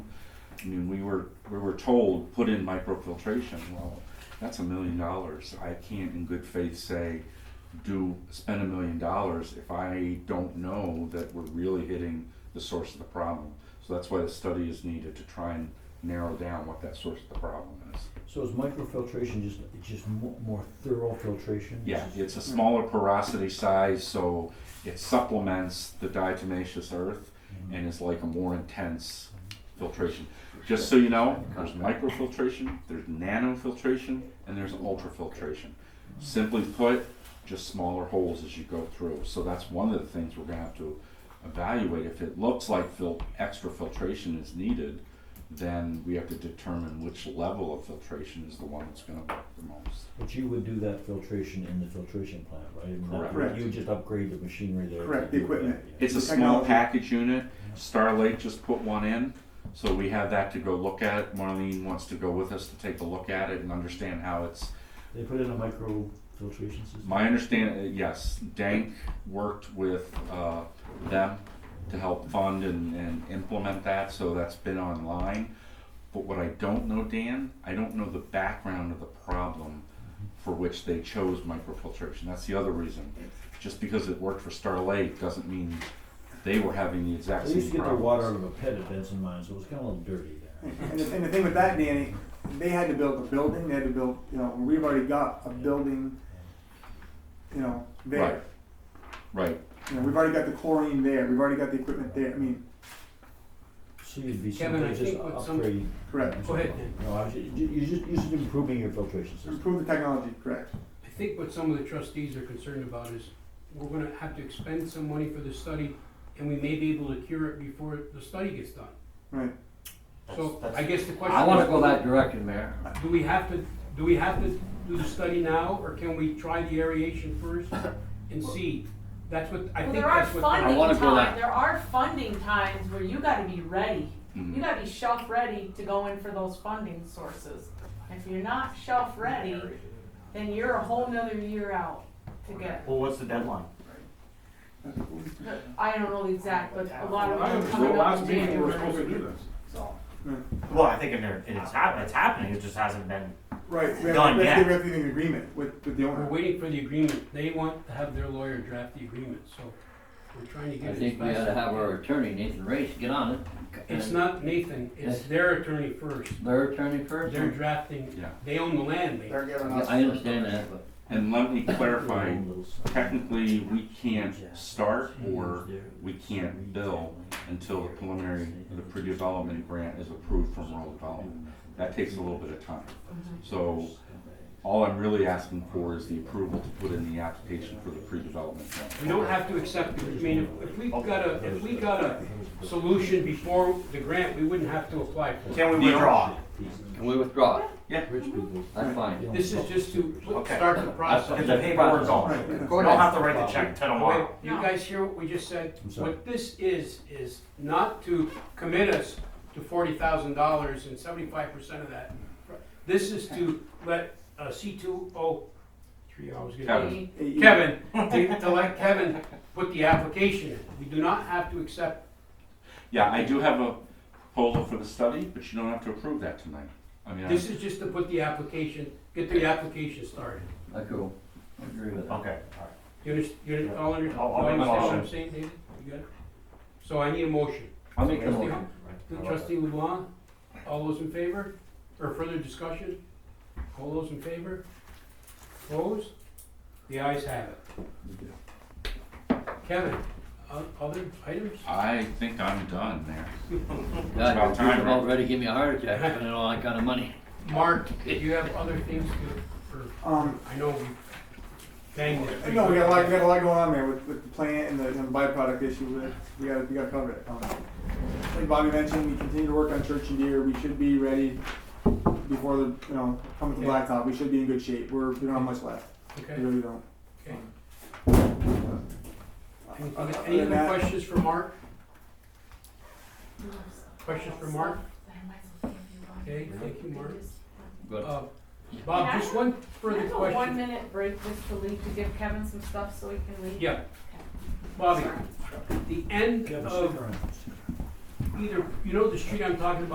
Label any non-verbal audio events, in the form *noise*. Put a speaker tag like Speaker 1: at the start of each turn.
Speaker 1: I mean, we were, we were told, put in microfiltration, well, that's a million dollars. I can't in good faith say, do, spend a million dollars if I don't know that we're really hitting the source of the problem. So that's why the study is needed to try and narrow down what that source of the problem is.
Speaker 2: So is microfiltration just, it's just mo- more thorough filtration?
Speaker 1: Yeah, it's a smaller porosity size, so it supplements the diatomaceous earth
Speaker 2: Mm-hmm.
Speaker 1: and is like a more intense filtration. Just so you know, there's microfiltration, there's nanofiltration, and there's ultrafiltration. Simply put, just smaller holes as you go through. So that's one of the things we're gonna have to evaluate. If it looks like fil- extra filtration is needed, then we have to determine which level of filtration is the one that's gonna work the most.
Speaker 2: But you would do that filtration in the filtration plant, right? I mean, that-
Speaker 1: Correct.
Speaker 2: You would just upgrade the machinery there. to
Speaker 3: Correct,
Speaker 2: do
Speaker 3: the
Speaker 2: that,
Speaker 3: equipment.
Speaker 2: yeah.
Speaker 1: It's a small
Speaker 3: Technology.
Speaker 1: package unit. Starlight just put one in, so we have that to go look at. Marlene wants to go with us to take a look at it and understand how it's.
Speaker 2: They put in a microfiltration system?
Speaker 1: My understand, uh, yes, Dank worked with uh, them to help fund and, and implement that, so that's been online. But what I don't know, Dan, I don't know the background of the problem for which they chose microfiltration. That's the other reason. Just because it worked for Starlight doesn't mean they were having the exact
Speaker 2: They
Speaker 1: same
Speaker 2: used to get their
Speaker 1: problems.
Speaker 2: water out of a pit at Benson Mine, so it was kinda a little dirty there.
Speaker 3: And the, and the thing with that, Danny, they had to build a building, they had to build, you know, we've already got a building, you know,
Speaker 1: Right.
Speaker 3: there.
Speaker 1: Right.
Speaker 3: You know, we've already got the chlorine there, we've already got the equipment there, I mean,
Speaker 2: So you'd be
Speaker 4: Kevin, I
Speaker 2: simply just
Speaker 4: think with some-
Speaker 2: upgrade.
Speaker 3: correct.
Speaker 4: Go ahead, Dan.
Speaker 2: No, I was, ju- ju- you're just, you're just improving your filtration system.
Speaker 3: Improve the technology, correct.
Speaker 4: I think what some of the trustees are concerned about is, we're gonna have to expend some money for this study, and we may be able to cure it before the study gets done.
Speaker 3: Right.
Speaker 4: So, I guess the question is.
Speaker 5: I wanna go that direction, Mayor.
Speaker 4: Do we have to, do we have to do the study now, or can we try the aeration first and see? That's what, I
Speaker 6: Well,
Speaker 4: think
Speaker 6: there are
Speaker 4: that's what.
Speaker 5: I
Speaker 6: funding
Speaker 5: wanna go that-
Speaker 6: times, there are funding times where you gotta be ready.
Speaker 1: Mhm.
Speaker 6: You gotta be shelf ready to go in for those funding sources. If you're not shelf ready, then you're a whole nother year out to get.
Speaker 7: Well, what's the deadline?
Speaker 6: I don't know the exact, but a lot of
Speaker 8: Well, I
Speaker 6: them
Speaker 8: was-
Speaker 6: coming
Speaker 8: well,
Speaker 6: up
Speaker 8: last
Speaker 6: in
Speaker 8: meeting, we were
Speaker 6: January.
Speaker 8: supposed to do this.
Speaker 7: Well, I think in there, it's happening, it's happening, it just hasn't been.
Speaker 3: Right, we have
Speaker 7: Done,
Speaker 3: to, we have to
Speaker 7: yeah.
Speaker 3: get everything in agreement with, with the
Speaker 4: We're
Speaker 3: owner.
Speaker 4: waiting for the agreement, they want to have their lawyer draft the agreement, so we're trying to get it.
Speaker 5: I
Speaker 4: as
Speaker 5: think we
Speaker 4: fast
Speaker 5: ought to
Speaker 4: as
Speaker 5: have
Speaker 4: can.
Speaker 5: our attorney, Nathan Race, get on it.
Speaker 4: It's
Speaker 5: And
Speaker 4: not Nathan, it's
Speaker 5: Yes.
Speaker 4: their attorney first,
Speaker 5: Their attorney first?
Speaker 4: they're drafting,
Speaker 1: Yeah.
Speaker 4: they own the land, they.
Speaker 5: Yeah, I understand that, but
Speaker 1: And let me clarify,
Speaker 2: Little s-
Speaker 1: *laughs* technically, we can't start or we can't bill until the preliminary, the pre-development grant is approved from rural development. That takes a little bit of time. So all I'm really asking for is the approval to put in the application for the pre-development grant.
Speaker 4: We don't have to accept, it. I mean, if- if we got a, if we got a solution before the grant, we wouldn't have to apply for it.
Speaker 7: Can we
Speaker 1: The
Speaker 7: withdraw?
Speaker 5: can we withdraw it?
Speaker 2: Rich people.
Speaker 5: That's fine.
Speaker 4: This is just to pl-
Speaker 7: Okay.
Speaker 4: start the
Speaker 7: Get
Speaker 4: process.
Speaker 7: the paperwork going.
Speaker 3: Right.
Speaker 5: Go
Speaker 7: We don't
Speaker 5: ahead.
Speaker 7: have to write the check till
Speaker 4: Wait,
Speaker 7: tomorrow.
Speaker 4: you guys hear what we just said?
Speaker 2: I'm sorry.
Speaker 4: What this is, is not to commit us to forty thousand dollars and seventy-five percent of that. This is to let uh, C two O, three, I was gonna.
Speaker 1: Kevin.
Speaker 4: Kevin, to, to let Kevin put the application in. We do not have to accept,
Speaker 1: Yeah, I do have a proposal for the study, but you don't have to approve that tonight. I mean, I-
Speaker 4: this is just to put the application, get the application started.
Speaker 5: I cool. I agree with that.
Speaker 7: Okay, alright.
Speaker 4: You understand, you under- all under,
Speaker 7: I'll- I'll
Speaker 4: all
Speaker 7: make
Speaker 4: understand
Speaker 7: a
Speaker 4: what
Speaker 7: motion.
Speaker 4: I'm saying, David? You got it? So I need a motion.
Speaker 1: I'll make a
Speaker 4: Trustee-
Speaker 1: motion.
Speaker 4: Trustee LeBlanc, all those in favor? Or further discussion? All those in favor? Opposed? The ayes have it. Kevin, o- other items?
Speaker 1: I think I'm done there.
Speaker 5: God, you're
Speaker 1: about time,
Speaker 5: just about
Speaker 1: right?
Speaker 5: ready to give me a heart attack, spending all that kind of money.
Speaker 4: Mark, do you have other things to, or?
Speaker 3: Um,
Speaker 4: I know we banged it. pretty
Speaker 3: no, we got a lot, we
Speaker 4: quick.
Speaker 3: got a lot going on there with, with the plant and the, and the byproduct issue, with- we gotta, we gotta cover it. Um, Like Bobby mentioned, we continue to work on Church and Deer, we should be ready before the, you know, come with the
Speaker 4: Okay.
Speaker 3: blacktop, we should be in good shape, we're, we don't have much left, we
Speaker 4: Okay,
Speaker 3: really don't.
Speaker 4: okay. Any-
Speaker 3: Uh, Other
Speaker 4: Any
Speaker 3: than
Speaker 4: other
Speaker 3: that-
Speaker 4: questions for Mark? Questions for Mark? Okay, thank you, Mark.
Speaker 5: Good.
Speaker 4: Uh, Bob, just one
Speaker 6: Can I
Speaker 4: further
Speaker 6: have a one
Speaker 4: question.
Speaker 6: minute break just to leave, to give Kevin some stuff so he can leave?
Speaker 4: Yeah. Bobby,
Speaker 6: Sorry.
Speaker 4: the end
Speaker 2: Kevin,
Speaker 4: of
Speaker 2: stick around.
Speaker 4: either, you know the street I'm talking about?